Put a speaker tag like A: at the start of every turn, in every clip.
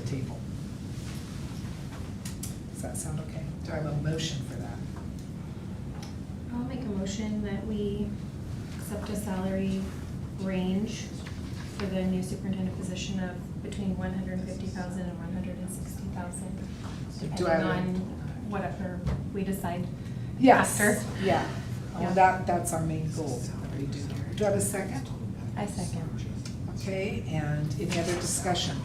A: table. Does that sound okay? Do I have a motion for that?
B: I'll make a motion that we accept a salary range for the new superintendent position of between one hundred and fifty thousand and one hundred and sixty thousand.
A: Do I have
B: Depending
A: a-
B: on whatever we decide.
A: Yes,
B: After.
A: yeah. Well,
B: Yeah.
A: that, that's our main goal that we do here. Do I have a second?
B: I second.
A: Okay, and any other discussion?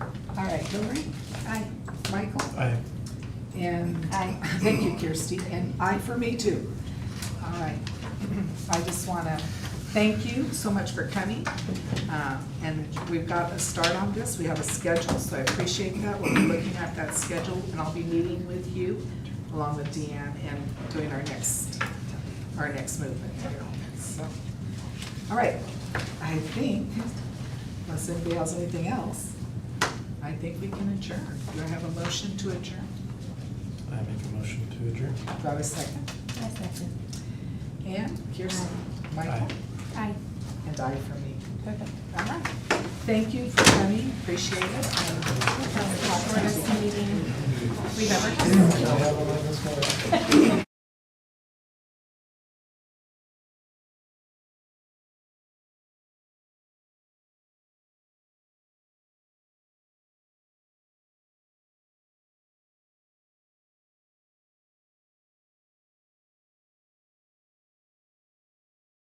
A: All right, Hillary? Aye. Michael?
C: Aye.
A: And
B: Aye.
A: thank you, Kirsty, and aye for me too. All right. I just want to thank you so much for coming. Uh, And we've got a start on this. We have a schedule, so I appreciate that. We'll be looking at that schedule, and I'll be meeting with you along with Deanne and doing our next, our next movement. So, All right, I think, unless anybody has anything else, I think we can adjourn. Do I have a motion to adjourn?
C: I make a motion to adjourn.
A: Do I have a second?
B: I second.
A: And Kirsten, Michael,
C: Aye.
B: Aye.
A: and I for me.
B: Perfect.
A: All right. Thank you for coming, appreciate it. And-
B: Shortest meeting we've ever had.